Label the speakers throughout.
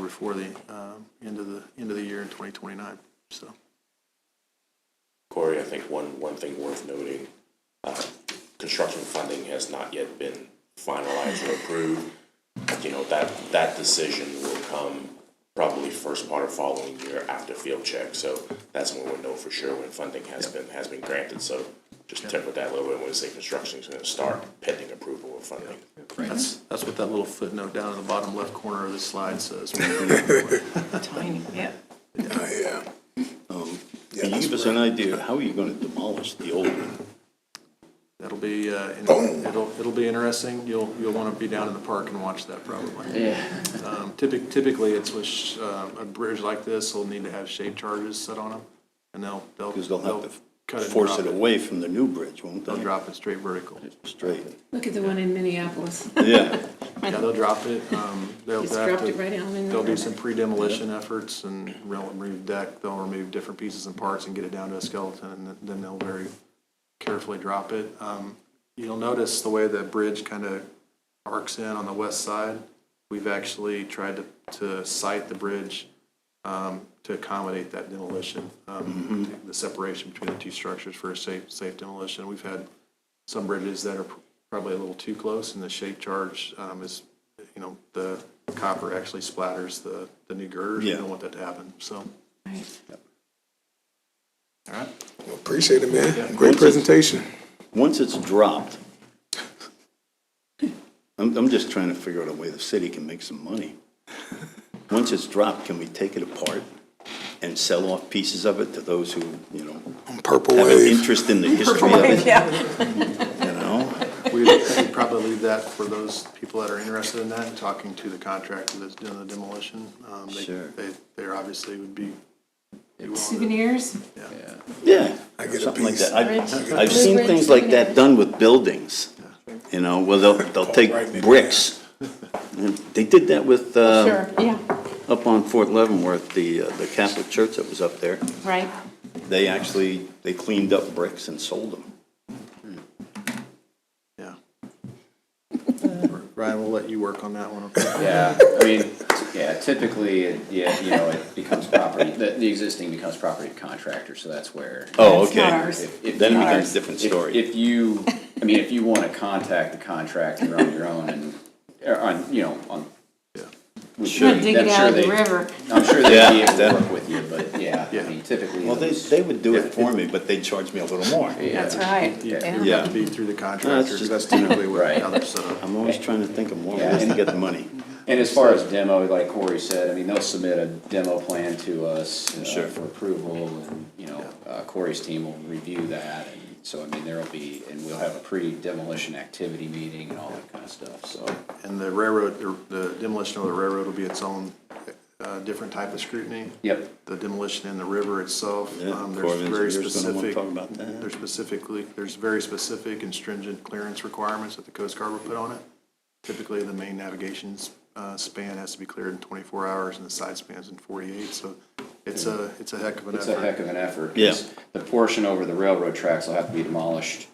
Speaker 1: before the um, end of the, end of the year in 2029, so.
Speaker 2: Corey, I think one, one thing worth noting, uh, construction funding has not yet been finalized or approved. You know, that, that decision will come probably first part of following year after field check. So that's when we'll know for sure when funding has been, has been granted. So just temper that a little bit when we say construction's gonna start pending approval of funding.
Speaker 1: That's, that's what that little footnote down in the bottom left corner of the slide says. Well,
Speaker 3: Tiny, yeah.
Speaker 4: Yeah.
Speaker 5: Can you give us an idea, how are you gonna demolish the old one?
Speaker 1: That'll be, uh, in- it'll, it'll be interesting. You'll, you'll want to be down in the park and watch that probably. Um, typic- Typically, it's with, sh- uh, a bridge like this, they'll need to have shape charges set on them, and they'll, they'll.
Speaker 5: Because they'll have
Speaker 1: cut
Speaker 5: to
Speaker 1: and
Speaker 5: force
Speaker 1: drop
Speaker 5: it away from the new bridge, won't they?
Speaker 1: They'll drop it straight vertical.
Speaker 5: Straight,
Speaker 3: Look at the one in Minneapolis.
Speaker 5: yeah.
Speaker 1: Yeah, they'll drop it, um, they'll
Speaker 3: Just
Speaker 1: have
Speaker 3: dropped
Speaker 1: to-
Speaker 3: it right out in the
Speaker 1: There'll be
Speaker 3: river.
Speaker 1: some pre-demolition efforts and they'll remove deck, they'll remove different pieces and parts and get it down to a skeleton, and then they'll very carefully drop it. Um, you'll notice the way the bridge kind of arcs in on the west side, we've actually tried to, to site the bridge, um, to accommodate that demolition, um, the separation between the two structures for a safe, safe demolition. We've had some bridges that are probably a little too close, and the shape charge um, is, you know, the copper actually splatters the, the new girders. We
Speaker 5: Yeah.
Speaker 1: don't want that to happen, so.
Speaker 3: Right.
Speaker 1: All right.
Speaker 4: Appreciate it, man. Great presentation.
Speaker 5: Once it's dropped, I'm, I'm just trying to figure out a way the city can make some money. Once it's dropped, can we take it apart and sell off pieces of it to those who, you know,
Speaker 4: Purple
Speaker 5: have an
Speaker 4: wave.
Speaker 5: interest in the history of it, you know?
Speaker 1: We'd we'd probably leave that for those people that are interested in that, and talking to the contractor that's doing the demolition. Um, they-
Speaker 5: Sure.
Speaker 1: They, they're obviously would be. be willing to-
Speaker 3: Souvenirs?
Speaker 1: Yeah.
Speaker 5: Yeah,
Speaker 4: I get a
Speaker 5: something like
Speaker 4: piece.
Speaker 5: that. I've,
Speaker 3: Ridge- Blue
Speaker 5: I've seen
Speaker 3: Ridge
Speaker 5: things like that
Speaker 3: Souvenirs.
Speaker 5: done with buildings, you know, where they'll, they'll
Speaker 4: Right in
Speaker 5: take
Speaker 4: the
Speaker 5: bricks. And They did that with, uh,
Speaker 3: Oh, Sure, yeah,
Speaker 5: up on Fort Leavenworth, the, uh, the Catholic church that was up there.
Speaker 3: right.
Speaker 5: They actually, they cleaned up bricks and sold them.
Speaker 1: Yeah. Ryan, we'll let you work on that one, okay?
Speaker 6: Yeah, I mean, yeah, typically, it- yeah, you know, it becomes property, the, the existing becomes property of contractor, so that's where.
Speaker 5: Oh,
Speaker 3: That's not
Speaker 5: okay.
Speaker 3: ours.
Speaker 6: If- if
Speaker 5: Then it
Speaker 6: you-
Speaker 5: becomes a different
Speaker 6: if-
Speaker 5: story.
Speaker 6: If you, I mean, if you wanna contact the contractor on your own and, or on, you know, on. with-
Speaker 3: Sure, dig
Speaker 6: I'm
Speaker 3: it out
Speaker 6: sure
Speaker 3: of the
Speaker 6: they-
Speaker 3: river.
Speaker 6: I'm sure they'd be
Speaker 5: Yeah,
Speaker 6: able to
Speaker 5: that-
Speaker 6: work with you, but yeah, I mean, typically.
Speaker 5: Well, they,
Speaker 6: those-
Speaker 5: they would do it for me, but they'd charge me a little more.
Speaker 6: yeah.
Speaker 3: That's right,
Speaker 1: You-
Speaker 3: yeah.
Speaker 1: It would have to be through the contractor, 'cause
Speaker 5: just-
Speaker 1: that's typically what
Speaker 6: Right.
Speaker 1: how they're set up.
Speaker 5: I'm always trying to think of more
Speaker 6: Yeah,
Speaker 5: ways to
Speaker 6: and-
Speaker 5: get the money.
Speaker 6: And as far as demo, like Corey said, I mean, they'll submit a demo plan to us uh,
Speaker 5: Sure.
Speaker 6: for approval, and, you know, uh, Corey's team will review that, and so, I mean, there'll be, and we'll have a pre-demolition activity meeting and all that kind of stuff, so.
Speaker 1: And the railroad, the- the demolition of the railroad will be its own, uh, different type of scrutiny.
Speaker 6: Yep,
Speaker 1: the demolition in the river itself.
Speaker 5: Yeah,
Speaker 1: um,
Speaker 5: Corps
Speaker 1: There's
Speaker 5: of
Speaker 1: very
Speaker 5: Engineers gonna wanna
Speaker 1: specific,
Speaker 5: talk about that.
Speaker 1: there's specifically, there's very specific and stringent clearance requirements that the Coast Guard will put on it. Typically, the main navigation uh, span has to be cleared in 24 hours and the side spans in 48. So it's a, it's a heck of an
Speaker 6: it's a heck
Speaker 1: effort.
Speaker 6: of an effort.
Speaker 5: Yeah.
Speaker 6: 'cause The portion over the railroad tracks will have to be demolished,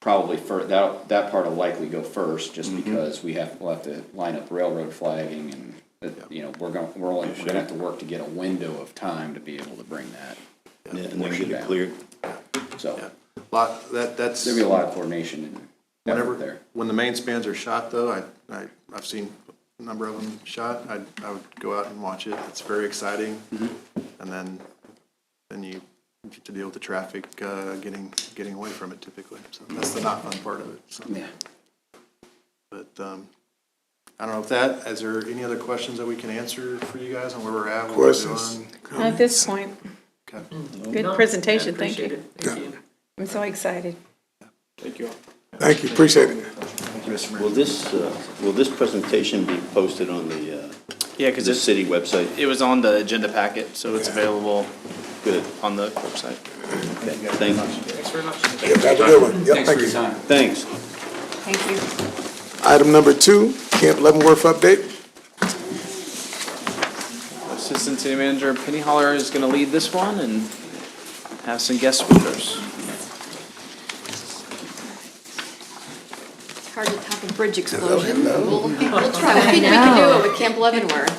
Speaker 6: probably fir, that, that part will likely go first, just
Speaker 5: Mm-hmm.
Speaker 6: because we have, we'll have to line up railroad flagging and, that, you know, we're gonna, we're only, we're gonna have to work to get a window of time to be able to bring that,
Speaker 5: Yeah, And then get it cleared.
Speaker 6: so.
Speaker 1: Lot, that, that's.
Speaker 6: There'd be a lot of coordination and effort
Speaker 1: Whenever,
Speaker 6: there.
Speaker 1: when the main spans are shot though, I, I, I've seen a number of them shot, I, I would go out and watch it, it's very exciting. And then, then you get to deal with the traffic, uh, getting, getting away from it typically, so that's the not fun part of it, so.
Speaker 6: Yeah.
Speaker 1: But, um, I don't know if that, is there any other questions that we can answer for you guys on where we're at? what we're
Speaker 4: Questions?
Speaker 1: doing?
Speaker 3: At this point,
Speaker 1: Okay.
Speaker 3: good presentation, thank you. I'm so excited.
Speaker 4: Thank you, appreciate it.
Speaker 5: Will this, uh, will this presentation be posted on the, uh,
Speaker 7: Yeah,
Speaker 5: the
Speaker 7: because it,
Speaker 5: city website?
Speaker 7: it was on the agenda packet, so it's available
Speaker 5: Good,
Speaker 7: on the website.
Speaker 5: thank you.
Speaker 4: Yep, have a good one. Yep,
Speaker 6: Thanks for
Speaker 4: thank
Speaker 6: your
Speaker 4: you.
Speaker 6: time.
Speaker 5: Thanks.
Speaker 3: Thank you.
Speaker 4: Item number two, Camp Leavenworth update.
Speaker 7: Assistant City Manager Penny Holler is going to lead this one and have some guest speakers.
Speaker 8: It's hard to top a bridge explosion. We'll we'll try, we'll see what we can do it with Camp Leavenworth.